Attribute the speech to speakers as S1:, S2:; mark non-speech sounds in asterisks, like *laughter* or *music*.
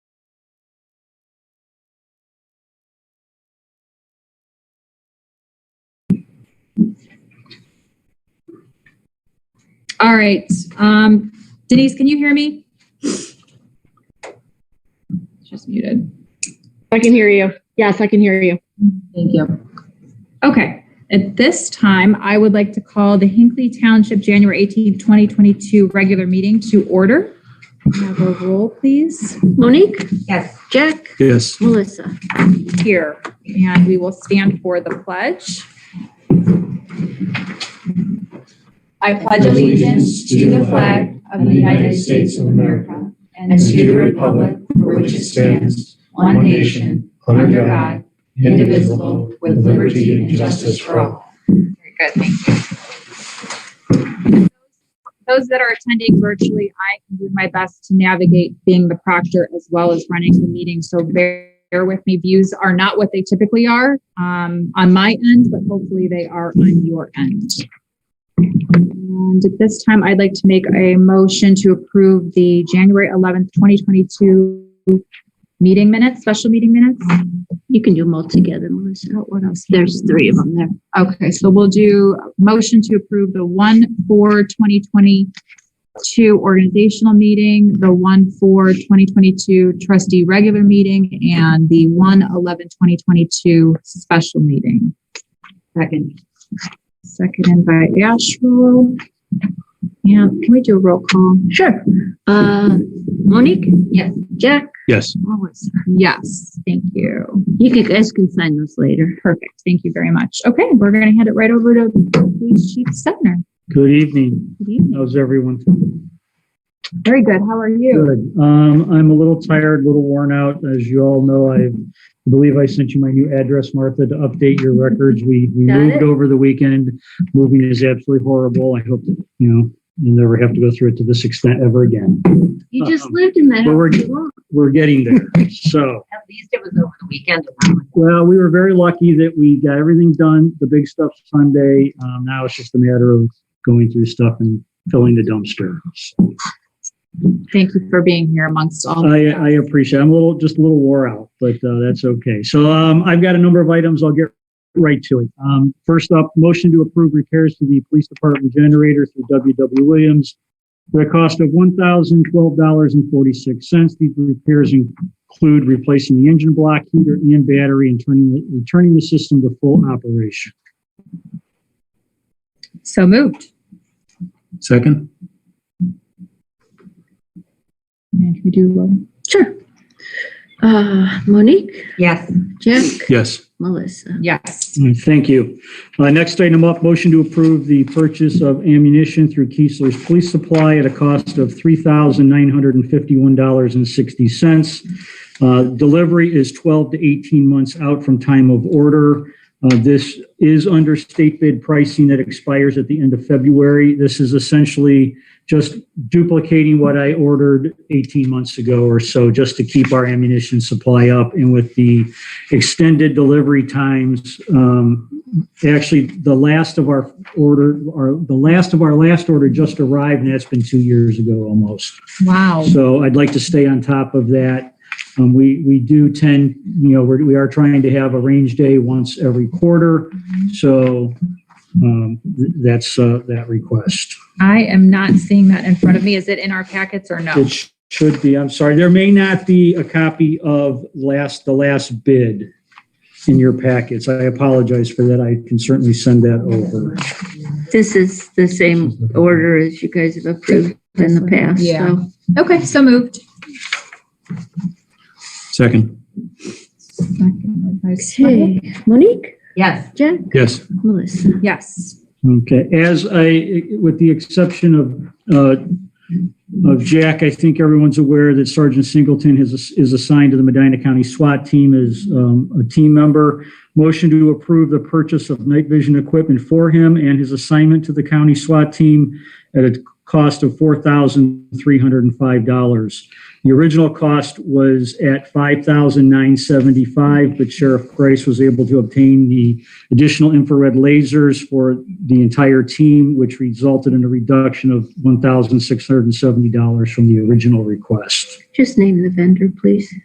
S1: All right. Um, Denise, can you hear me? Just muted.
S2: I can hear you. Yes, I can hear you.
S3: Thank you.
S1: Okay. At this time, I would like to call the Hinkley Township January eighteenth, 2022 regular meeting to order. Can I Have a roll, please.
S2: Monique,
S3: Yes.
S2: Jack,
S4: Yes.
S2: Melissa.
S1: Here, and we will stand for the pledge. I pledge
S5: allegiance to the flag of the United States of America and to the republic for which it stands, one nation, under God, indivisible, with liberty and justice for all.
S1: Very good, thank you. Those that are attending virtually, I can do my best to navigate being the proctor as well as running the meeting. So bear, bear with me. Views are not what they typically are um, on my end, but hopefully they are on your end. And at this time, I'd like to make a motion to approve the January 11th, 2022 meeting minutes, special meeting minutes.
S2: You can do them all together, Melissa. What else? There's three of them there.
S1: Okay, so we'll do a motion to approve the one for 2022 organizational meeting, the one for 2022 trustee regular meeting, and the 1/11/2022 special meeting. Second. Seconded by Asherle. And can we do a roll call?
S2: Sure. Uh, Monique?
S1: Yes.
S2: Jack,
S4: Yes.
S2: Melissa.
S1: Yes, thank you.
S2: You can, guys can sign those later.
S1: Perfect, thank you very much. Okay, we're going to hand it right over to Police Chief Stepner.
S4: Good evening.
S1: Good evening.
S4: How's everyone?
S1: Very good, how are you?
S4: Good. Um, I'm a little tired, a little worn out. As you all know, I believe I sent you my new address, Martha, to update your records. We we
S2: Got
S4: moved
S2: it.
S4: over the weekend. Moving is absolutely horrible. I hope that, you know, you never have to go through it to this extent ever again.
S3: Uh,
S2: You just
S4: Um,
S2: lived in that
S4: well, we're-
S2: house too long.
S4: We're getting
S2: *laughs*
S4: there. So.
S3: At least it was over the weekend.
S4: Well, we were very lucky that we got everything done, the big stuff Sunday. Um, now it's just a matter of going through stuff and filling the dumpster.
S1: Thank you for being here amongst all.
S4: I, I appreciate, it. I'm a little, just a little wore out, but, uh, that's okay. So, um, I've got a number of items. I'll get right to it. Um, first up, motion to approve repairs to the police department generator through W. W. Williams for a cost of one thousand twelve dollars and forty-six cents. These repairs include replacing the engine block, heater, and battery, and turning, the- returning the system to full operation.
S1: So moved.
S5: Second?
S1: And can we do, um,
S2: Sure. Uh, Monique,
S3: Yes.
S2: Jack,
S5: Yes.
S2: Melissa.
S1: yes.
S4: All right, Mm, Thank you. Uh, Next item up, motion to approve the purchase of ammunition through Keesler's Police Supply at a cost of $3,951.60. Uh, Delivery is 12 to 18 months out from time of order. Uh, This is under state bid pricing that expires at the end of February. This is essentially just duplicating what I ordered 18 months ago or so, just to keep our ammunition supply up. And with the extended delivery times. Um, Actually, the last of our order, our, the last of our last order just arrived, and that's been two years ago almost.
S1: Wow.
S4: So I'd like to stay on top of that. Um, we, we do tend, you know, we're, we are trying to have a range day once every quarter. So, um, th- that's, uh, that request.
S1: I am not seeing that in front of me. Is it in our packets or no?
S4: It sh- should be, I'm sorry, there may not be a copy of last, the last bid in your packets. I apologize for that. I can certainly send that over.
S2: This is the same order as you guys have approved in the past,
S1: Yeah.
S2: so.
S1: Okay, so moved.
S5: Second?
S2: Okay, Monique,
S3: Yes.
S2: Jack,
S5: Yes.
S2: Melissa.
S1: Yes.
S4: Okay, as I, with the exception of, uh, of Jack, I think everyone's aware that Sergeant Singleton is, is assigned to the Medina County SWAT team as, um, a team member. Motion to approve the purchase of night vision equipment for him and his assignment to the county SWAT team at a cost of four thousand three hundred and five dollars. The original cost was at five thousand nine seventy-five, but Sheriff Price was able to obtain the additional infrared lasers for the entire team, which resulted in a reduction of $1,670 from the original request.
S2: Just name the vendor, please.